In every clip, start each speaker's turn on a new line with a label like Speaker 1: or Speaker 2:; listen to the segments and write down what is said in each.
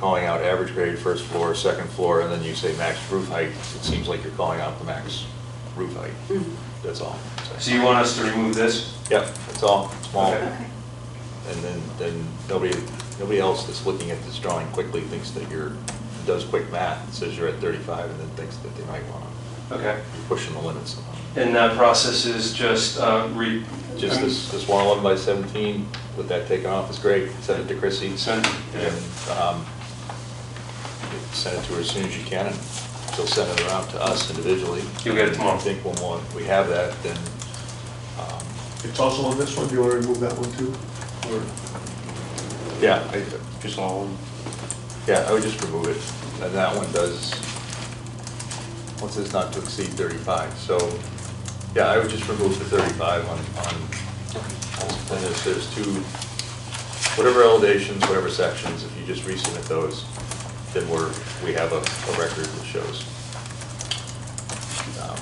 Speaker 1: calling out average grade, first floor, second floor, and then you say max roof height, it seems like you're calling out the max roof height.
Speaker 2: Mhm.
Speaker 1: That's all.
Speaker 3: So you want us to remove this?
Speaker 1: Yep, that's all, small.
Speaker 3: Okay.
Speaker 2: Okay.
Speaker 1: And then, then nobody, nobody else that's looking at this drawing quickly thinks that you're, does quick math, and says you're at 35, and then thinks that they might want to,
Speaker 3: Okay.
Speaker 1: you're pushing the limits somehow.
Speaker 3: And that process is just uh, re...
Speaker 1: Just this, this 111 by 17, with that taken off, is great, send it to Chrissy.
Speaker 3: Send- yeah.
Speaker 1: And, um, Send it to her as soon as you can, and she'll send it around to us individually.
Speaker 3: You'll get it tomorrow.
Speaker 1: I think when we'll- we have that, then, um,
Speaker 4: It's also on this one, do you want to remove that one too? Or-
Speaker 1: yeah, I,
Speaker 5: Just all,
Speaker 1: Yeah, I would just remove it. And that one does, once it's not to exceed 35. So, yeah, I would just remove the 35 on, on, and if there's two, whatever elevations, whatever sections, if you just resubmit those, then we're, we have a, a record that shows. Um,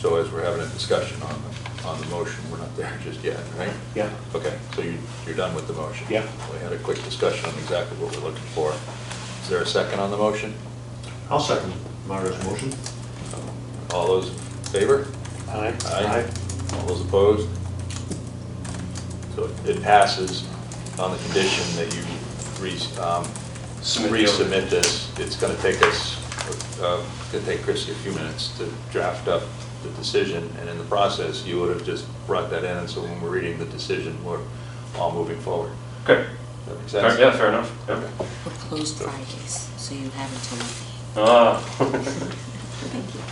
Speaker 1: So as we're having a discussion on, the on the motion, we're not there just yet, right?
Speaker 5: Yeah.
Speaker 1: Okay, so you, you're done with the motion?
Speaker 5: Yeah.
Speaker 1: We had a quick discussion on exactly what we're looking for. Is there a second on the motion?
Speaker 4: I'll second Mario's motion.
Speaker 1: All those in favor?
Speaker 5: aye?
Speaker 1: All those opposed? So it passes on the condition that you re, um,
Speaker 3: Submit the-
Speaker 1: resubmit this. It's gonna take us, uh, it's gonna take Christie a few minutes to draft up the decision, and in the process, you would have just brought that in, and so when we're reading the decision, we're all moving forward.
Speaker 3: Okay.
Speaker 1: Does that make sense?
Speaker 3: Fair- Yeah, fair enough. Yep.
Speaker 6: We're closed Fridays, so you have until Monday.
Speaker 3: Ah.
Speaker 6: Thank you.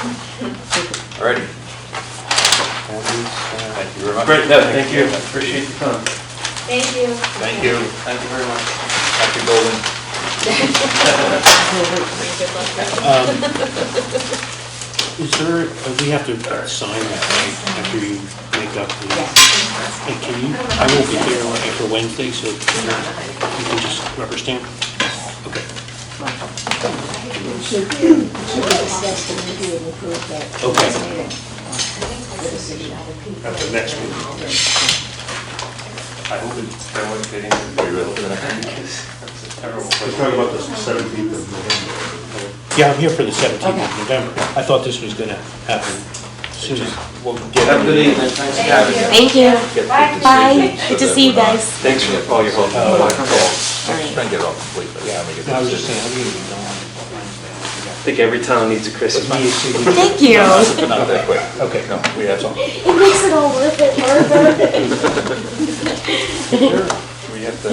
Speaker 1: All righty.
Speaker 5: That is, uh,
Speaker 1: Thank you very much.
Speaker 3: Great, no, thank you. Appreciate your time.
Speaker 2: Thank you.
Speaker 1: Thank you.
Speaker 3: Thank you very much.
Speaker 1: Happy Golden.
Speaker 2: Good luck.
Speaker 5: Um, Is there, uh, we have to sign that, right, after you make up the... Hey, can you, I won't be here after Wednesday, so you can just rubber stamp? Okay,
Speaker 7: We should, we should discuss the review and approve that.
Speaker 5: Okay.
Speaker 7: The decision.
Speaker 5: at the next meeting.
Speaker 3: I hope it's, I won't get into...
Speaker 1: Are you ready for the next one?
Speaker 3: It's a terrible
Speaker 4: Let's
Speaker 3: question.
Speaker 4: talk about the 17th of November. okay?
Speaker 5: Yeah, I'm here for the 17th of
Speaker 7: Okay.
Speaker 5: November. I thought this was gonna happen soon.
Speaker 1: We'll get
Speaker 3: Have a good evening. Thanks for having me.
Speaker 6: Thank you.
Speaker 1: Get the
Speaker 2: Bye.
Speaker 6: Bye.
Speaker 1: decision so
Speaker 6: Good to
Speaker 1: that
Speaker 6: see you
Speaker 1: we're not-
Speaker 6: guys.
Speaker 1: Thanks for all your help.
Speaker 3: Oh,
Speaker 5: You're welcome.
Speaker 1: Thanks. Try and get it all complete. by the time we get the
Speaker 5: I was just
Speaker 1: decision.
Speaker 5: saying, I'm gonna be gone Wednesday.
Speaker 3: I think every town needs a Christmas.
Speaker 6: Thank you. It
Speaker 1: Not that quick.
Speaker 5: Okay.
Speaker 1: No, we have some.
Speaker 7: makes it all worth it, Martha.
Speaker 1: We have to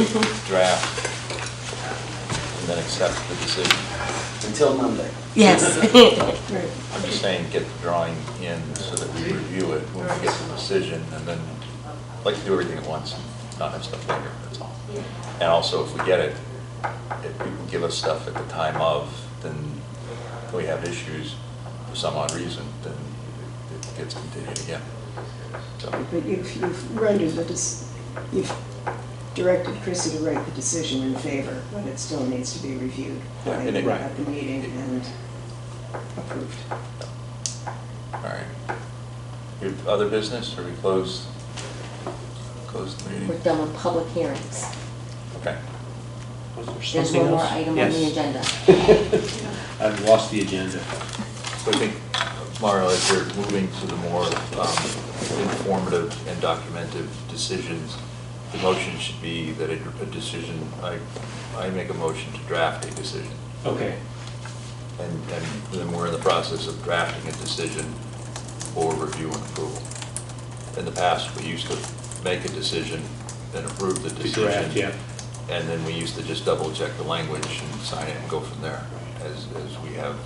Speaker 1: draft and then accept the decision.
Speaker 6: Yes.
Speaker 7: Right.
Speaker 1: I'm just saying, get the drawing in so that we review it when we get the decision, and then, I'd like to do everything at once, not have stuff later, that's all. And also, if we get it, if people give us stuff at the time of, then we have issues for some odd reason, then it gets continued again. So,
Speaker 7: But you've, you've rendered the, dec- you've directed Chrissy to write the decision in favor, but it still needs to be reviewed
Speaker 1: Yeah,
Speaker 7: by-
Speaker 1: and it-
Speaker 7: at the meeting and approved.
Speaker 1: all right. Your other business, or we close, close the
Speaker 6: We're
Speaker 1: meeting?
Speaker 6: done with public hearings.
Speaker 1: Okay.
Speaker 5: Was there
Speaker 6: There's
Speaker 5: something
Speaker 6: one more
Speaker 5: else?
Speaker 6: item on the
Speaker 5: Yes.
Speaker 6: agenda.
Speaker 5: I've lost the agenda.
Speaker 1: So I think, Mario, as we're moving to the more um, informative and documented decisions, the motion should be that a a decision, I, I make a motion to draft a decision.
Speaker 5: Okay.
Speaker 1: And, and then we're in the process of drafting a decision for review and approval. In the past, we used to make a decision and approve the
Speaker 5: To
Speaker 1: decision.
Speaker 5: draft, yeah.
Speaker 1: And then we used to just double check the language and sign it and go from there, as, as we have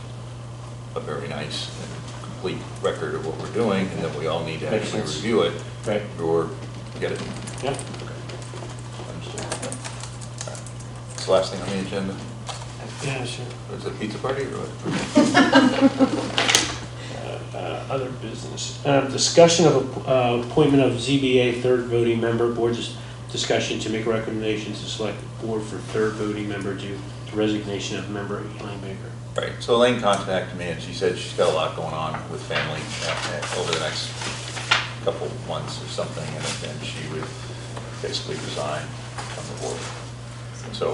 Speaker 1: a very nice and complete record of what we're doing, and that we all need to
Speaker 5: Makes
Speaker 1: actually
Speaker 5: sense.
Speaker 1: review it.
Speaker 5: Right.
Speaker 1: Or get it.
Speaker 5: Yeah.
Speaker 1: Understood. All right. It's the last thing on the agenda.
Speaker 5: Yeah, sure.
Speaker 1: Is it a pizza party or what?
Speaker 5: Uh, Other business. Uh, Discussion of uh, appointment of ZBA third voting member, board's discussion to make recommendations to select board for third voting member due to resignation of member Elaine Baker.
Speaker 1: Right, so Elaine contacted me and she said she's got a lot going on with family uh, uh, over the next couple months or something, and then she would basically resign from the board. So